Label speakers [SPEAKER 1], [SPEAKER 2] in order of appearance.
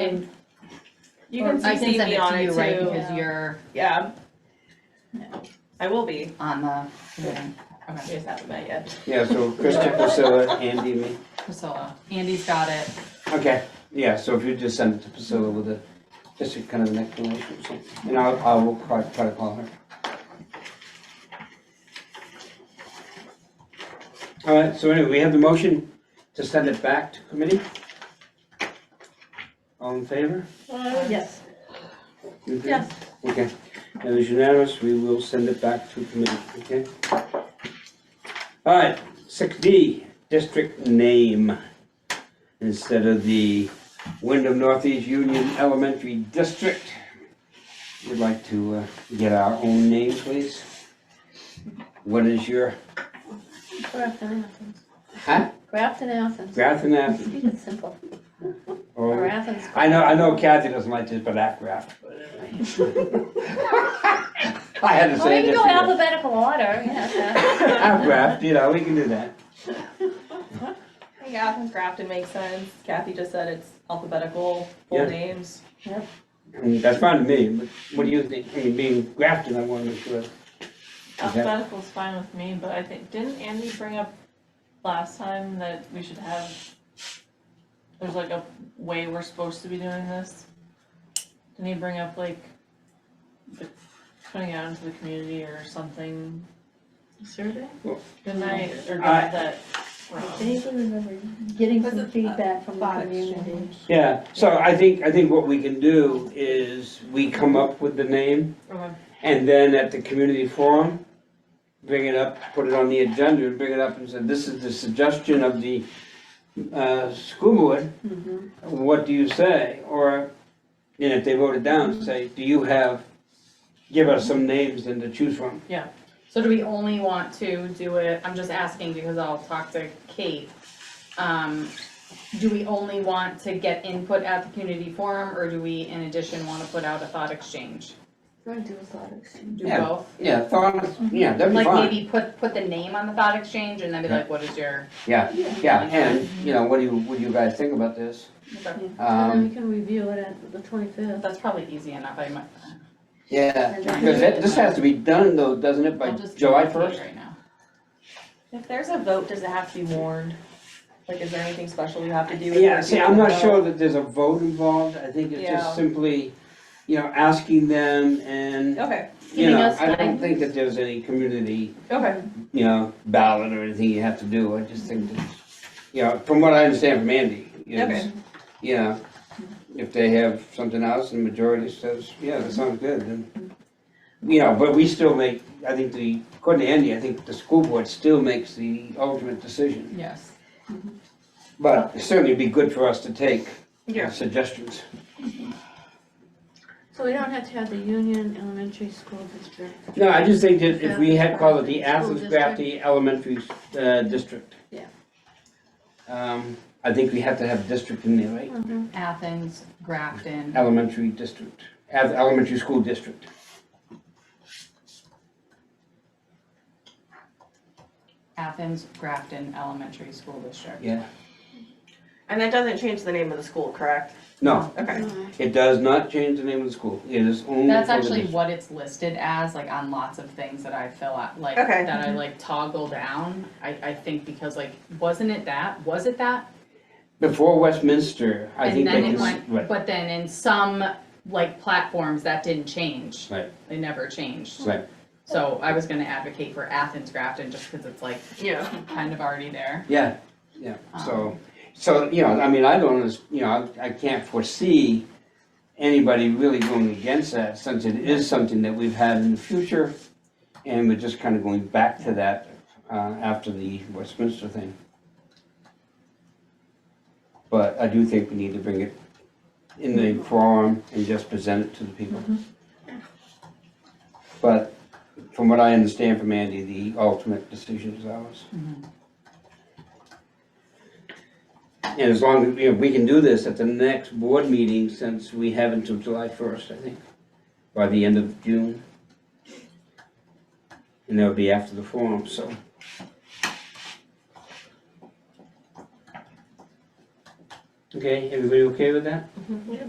[SPEAKER 1] And
[SPEAKER 2] You can
[SPEAKER 1] I can
[SPEAKER 2] CC
[SPEAKER 1] send
[SPEAKER 2] me
[SPEAKER 1] it
[SPEAKER 2] on
[SPEAKER 1] to you, right,
[SPEAKER 2] it too.
[SPEAKER 1] because you're
[SPEAKER 2] Yeah. I will be.
[SPEAKER 1] on the, committee.
[SPEAKER 2] We just haven't met yet.
[SPEAKER 3] Yeah, so Krista, Priscilla, Andy, me.
[SPEAKER 1] Priscilla, Andy's got it.
[SPEAKER 3] Okay, yeah, so if you just send it to Priscilla with a, just a kind of an explanation or something. And I'll, I will try, try to call her. All right, so anyway, we have the motion to send it back to committee. All in favor?
[SPEAKER 4] Oh,
[SPEAKER 2] Yes.
[SPEAKER 3] You agree?
[SPEAKER 2] Yes.
[SPEAKER 3] Okay, and it's unanimous, we will send it back to committee, okay? All right, six D, district name. Instead of the Wyndham Northeast Union Elementary District, we'd like to uh, get our own name, please. What is your
[SPEAKER 4] Grafton Athens.
[SPEAKER 3] Huh?
[SPEAKER 4] Grafton Athens.
[SPEAKER 3] Grafton Ave?
[SPEAKER 4] Keep it simple. Or
[SPEAKER 3] or-
[SPEAKER 4] Athens.
[SPEAKER 3] Oh, I know, I know Kathy doesn't like this, but act Graft. I had to
[SPEAKER 4] Or
[SPEAKER 3] say
[SPEAKER 4] you
[SPEAKER 3] this.
[SPEAKER 4] can go alphabetical order, yeah.
[SPEAKER 3] Act Graft, you know, we can do that.
[SPEAKER 2] I think Athens Grafton makes sense. Kathy just said it's alphabetical,
[SPEAKER 3] Yeah.
[SPEAKER 2] full names.
[SPEAKER 3] I mean, that's fine to me, but what do you think, I mean, being Grafton, I wanna make sure. Okay.
[SPEAKER 5] Alphabetical's fine with me, but I think, didn't Andy bring up last time that we should have, there's like a way we're supposed to be doing this? Didn't he bring up like, the- putting it out into the community or something?
[SPEAKER 4] Survey?
[SPEAKER 5] Didn't I, or did
[SPEAKER 3] I-
[SPEAKER 5] I that wrong?
[SPEAKER 4] Anything remember, getting
[SPEAKER 2] Was
[SPEAKER 4] some
[SPEAKER 2] it
[SPEAKER 4] feedback from the
[SPEAKER 2] thought
[SPEAKER 4] community.
[SPEAKER 2] exchange?
[SPEAKER 3] Yeah, so I think, I think what we can do is we come up with the name
[SPEAKER 5] Okay.
[SPEAKER 3] and then at the community forum, bring it up, put it on the agenda, and bring it up and say, this is the suggestion of the, uh, school board.
[SPEAKER 4] Mm-hmm.
[SPEAKER 3] What do you say? Or, and if they vote it down, say, do you have, give us some names and to choose from.
[SPEAKER 1] So do we only want to do it, I'm just asking because I'll talk to Kate. Um, do we only want to get input at the community forum, or do we in addition wanna put out a thought exchange?
[SPEAKER 4] We're gonna do a thought exchange.
[SPEAKER 1] Do
[SPEAKER 3] Yeah.
[SPEAKER 1] both?
[SPEAKER 3] Yeah, thoughts, yeah, that'd be
[SPEAKER 1] Like
[SPEAKER 3] fine.
[SPEAKER 1] maybe put, put the name on the thought exchange and then be like, what is your,
[SPEAKER 3] Yeah, yeah, and, you know, what do you, what do you guys think about this?
[SPEAKER 4] And then
[SPEAKER 3] Um,
[SPEAKER 4] we can review it at the twenty-fifth.
[SPEAKER 1] that's probably easy enough, I might.
[SPEAKER 3] yeah, because that, this has to be done though, doesn't it, by
[SPEAKER 1] I'll just
[SPEAKER 3] July
[SPEAKER 1] do it
[SPEAKER 3] first?
[SPEAKER 1] Right now.
[SPEAKER 2] If there's a vote, does it have to be warned? Like, is there anything special you have to do? if
[SPEAKER 3] Yeah,
[SPEAKER 2] we're
[SPEAKER 3] see,
[SPEAKER 2] doing
[SPEAKER 3] I'm
[SPEAKER 2] a
[SPEAKER 3] not
[SPEAKER 2] vote?
[SPEAKER 3] sure that there's a vote involved, I think it's
[SPEAKER 2] Yeah.
[SPEAKER 3] just simply, you know, asking them and,
[SPEAKER 2] Okay,
[SPEAKER 3] you
[SPEAKER 1] Giving
[SPEAKER 3] know,
[SPEAKER 1] us
[SPEAKER 3] I don't
[SPEAKER 1] guidance.
[SPEAKER 3] think that there's any community,
[SPEAKER 2] okay.
[SPEAKER 3] you know, ballot or anything you have to do, I just think that, you know, from what I understand from Andy, is,
[SPEAKER 2] Okay.
[SPEAKER 3] you know, if they have something else and the majority says, yeah, that sounds good, then you know, but we still make, I think the, according to Andy, I think the school board still makes the ultimate decision.
[SPEAKER 1] Yes.
[SPEAKER 3] But it certainly be good for us to take
[SPEAKER 2] Yeah.
[SPEAKER 3] suggestions.
[SPEAKER 4] So we don't have to have the Union Elementary School District.
[SPEAKER 3] No, I just think that if we had called it the Athens Grafton Elementary uh, District.
[SPEAKER 4] Yeah.
[SPEAKER 3] Um, I think we have to have district in there, right?
[SPEAKER 4] Mhm.
[SPEAKER 1] Athens, Grafton,
[SPEAKER 3] Elementary district, as elementary school district.
[SPEAKER 1] Athens, Grafton Elementary School District.
[SPEAKER 3] Yeah.
[SPEAKER 2] And that doesn't change the name of the school, correct?
[SPEAKER 3] No,
[SPEAKER 2] Okay.
[SPEAKER 4] Uh,
[SPEAKER 3] it does not change the name of the school. It is only.
[SPEAKER 1] That's
[SPEAKER 3] for the
[SPEAKER 1] actually
[SPEAKER 3] district.
[SPEAKER 1] what it's listed as, like on lots of things that I fill out, like,
[SPEAKER 2] Okay.
[SPEAKER 1] that I like toggle down. I, I think because like, wasn't it that, was it that?
[SPEAKER 3] Before Westminster, I
[SPEAKER 1] And
[SPEAKER 3] think they
[SPEAKER 1] then
[SPEAKER 3] can,
[SPEAKER 1] it
[SPEAKER 3] s-
[SPEAKER 1] went,
[SPEAKER 3] right,
[SPEAKER 1] but then in some like platforms, that didn't change.
[SPEAKER 3] Right.
[SPEAKER 1] They never changed.
[SPEAKER 3] right.
[SPEAKER 1] So I was gonna advocate for Athens Grafton just because it's like
[SPEAKER 2] Yeah.
[SPEAKER 1] kind of already there.
[SPEAKER 3] Yeah, yeah, so, so, you know, I mean, I don't, unders- you know, I I can't foresee anybody really going against that, since it is something that we've had in the future, and we're just kind of going back to that uh, after the Westminster thing. But I do think we need to bring it in the forum and just present it to the people. But from what I understand from Andy, the ultimate decision is ours. And as long as, you know, we can do this at the next board meeting, since we have until July first, I think, by the end of June. And that'll be after the forum, so. Okay, everybody okay with that?